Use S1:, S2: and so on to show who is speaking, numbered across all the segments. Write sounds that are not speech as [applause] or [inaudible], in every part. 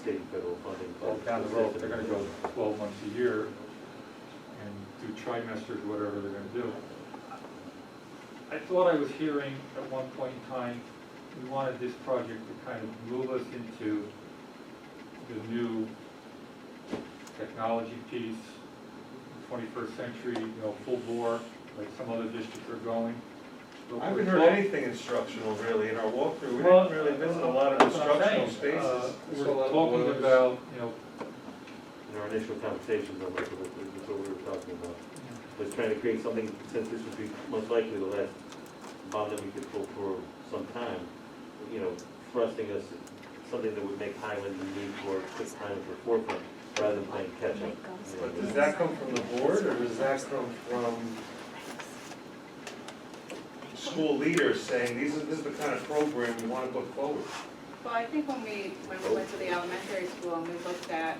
S1: state and federal funding.
S2: Well, down the road, they're gonna go twelve months a year and do trimesters, whatever they're gonna do. I thought I was hearing at one point in time, we wanted this project to kind of move us into the new technology piece, twenty-first century, you know, full bore, like some other districts are going. But
S3: I
S2: we're
S3: haven't heard
S2: talk-
S3: anything instructional really in our walkthrough, we
S2: Well,
S3: didn't really visit a lot of
S2: that's what I'm
S3: instructional
S2: saying. Uh,
S3: spaces.
S4: There's a lot
S2: We're
S4: of
S2: talking
S4: boilers.
S2: about, you know,
S1: In our initial conversations, I'm like, "Well, that's what we were talking about. Was trying to create something, since this would be most likely the last bond that we could pull for some time, you know, thrusting us, something that would make Highland the need for quick time for forefront, rather than playing catch up.
S3: But does that come from the board or does that come from school leaders saying, these is, this is the kind of program we wanna put forward?
S5: Well, I think when we, when we went to the elementary school and we looked at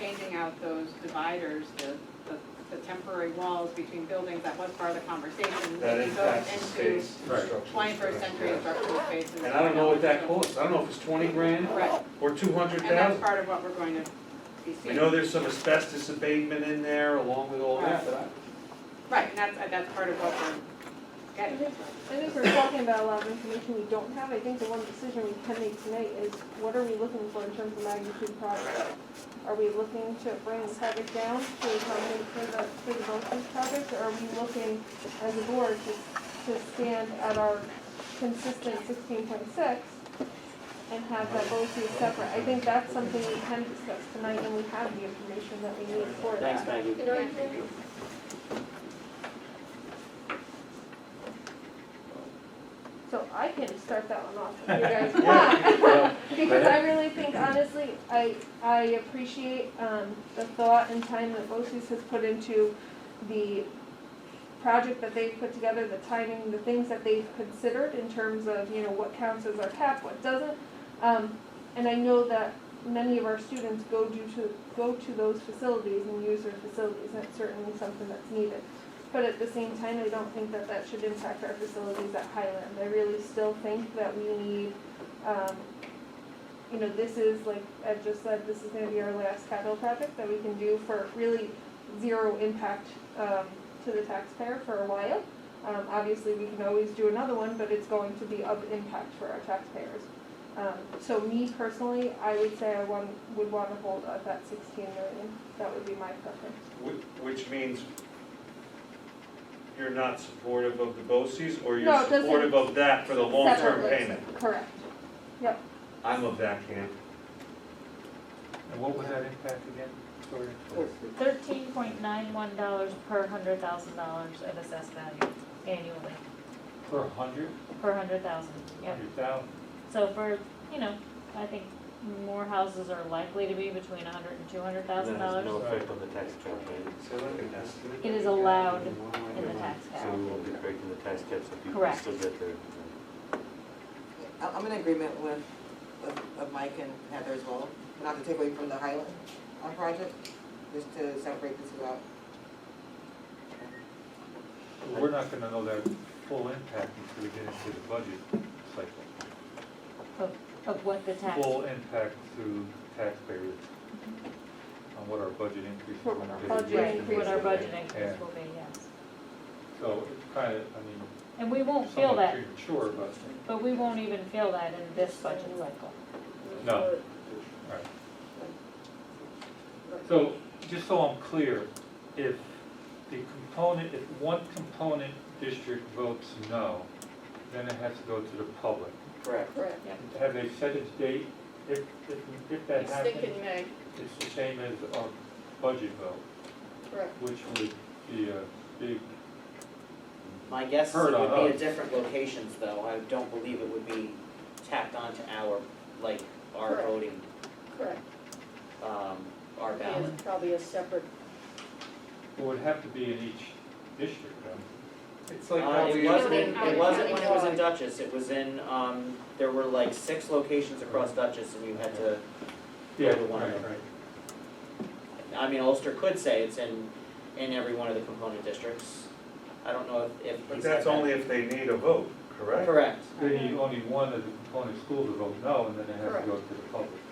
S5: changing out those dividers, the, the- the temporary walls between buildings, that was part of the conversation.
S3: That
S5: maybe going
S3: impacts the
S5: into
S3: space.
S2: Right.
S3: instructional space.
S5: Twenty-first century instructional spaces.
S3: And I don't know what that costs, I don't know if it's twenty grand
S5: Right,
S3: or two hundred
S5: and that's
S3: thousand.
S5: part of what we're going to be
S3: I
S5: seeing.
S3: know there's some asbestos abatement in there along with all that, but I,
S5: Right, and that's, that's part of what we're
S6: I
S5: getting.
S6: think I think we're talking about a lot of information we don't have. I think the one decision we can make tonight is what are we looking for in terms of magnitude of project? Are we looking to bring the project down to accommodate for the, for the Brunswick project? Or are we looking as a board to, to stand at our consistent sixteen point six and have that both be separate? I think that's something we can discuss tonight and we have the information that we need for that.
S7: Thanks, Maggie.
S6: So I can start that one off
S7: [laughs]
S6: if you guys want. [laughs] Because I really think honestly, I, I appreciate, um, the thought and time that BOCES has put into the project that they've put together, the timing, the things that they've considered in terms of, you know, what counts as our cap, what doesn't. Um, and I know that many of our students go do to, go to those facilities and use their facilities, and it's certainly something that's needed. But at the same time, I don't think that that should impact our facilities at Highland. I really still think that we need, um, you know, this is, like Ed just said, this is gonna be our last capital project that we can do for really zero impact, um, to the taxpayer for a while. Um, obviously, we can always do another one, but it's going to be of impact for our taxpayers. Um, so me personally, I would say I want, would wanna hold at that sixteen million. That would be my preference.
S3: whi- which means you're not supportive of the BOCES or
S6: No,
S3: you're
S6: it doesn't-
S3: supportive of that for the long-term
S6: Separately,
S3: payment?
S6: Correct.
S3: I'm of that camp.
S2: and what was that impact again? Sorry.
S8: Thirteen point nine one dollars per hundred thousand dollars of assessed value annually,
S2: Per hundred,
S8: per hundred thousand, yeah.
S2: hundred thousand?
S8: So for, you know, I think more houses are likely to be between a hundred and two hundred thousand
S1: That has
S8: dollars.
S1: no effect on the tax cap, right?
S3: So like an estimate?
S8: It is allowed in the tax
S1: So
S8: cap.
S1: we won't be breaking the tax cap, so people
S8: Correct.
S1: still get their.
S9: I- I'm in agreement with, of- of Mike and Heather as well, not to take away from the Highland uh, project, just to separate the two out.
S2: We're not gonna know that full impact until we get into the budget cycle.
S8: Of, of what the tax,
S2: Full impact to taxpayers on what our budget increase is on our.
S6: Budget
S8: right,
S6: increase.
S8: what our budget
S2: Yeah.
S8: increase will be, yes.
S2: So it's kind of, I mean,
S8: And we won't feel
S2: somewhat
S8: that,
S2: premature, but,
S8: but we won't even feel that in this budget cycle.
S2: no. Right. So, just so I'm clear, if the component, if one component district votes no, then it has to go to the public.
S4: Correct.
S5: Correct.
S2: Have they set its date? If, if, if that
S5: It's
S2: happens?
S5: thinking May,
S2: It's the same as our budget vote,
S5: correct.
S2: which would be a big,
S7: My guess
S2: Heard
S7: would
S2: on
S7: be
S2: us.
S7: at different locations, though, I don't believe it would be tacked onto our, like, our
S5: Correct.
S7: voting,
S5: Correct.
S7: um, our ballot.
S5: Probably a separate
S2: it would have to be in each district, then.
S3: It's like
S7: Uh,
S3: how
S7: it
S3: we,
S7: wasn't,
S3: it
S7: in- it wasn't when it was in
S5: County-wide.
S7: Dutchess, it was in, um, there were like six locations across Dutchess, and you had to, Yeah, the one-
S2: Right, right.
S7: I mean, Ulster could say it's in, in every one of the component districts. I don't know if, if he said
S3: but that's
S7: that.
S3: only if they need a vote, correct?
S7: Correct.
S2: They need only one of the component schools to vote no, and then it has to go to the public.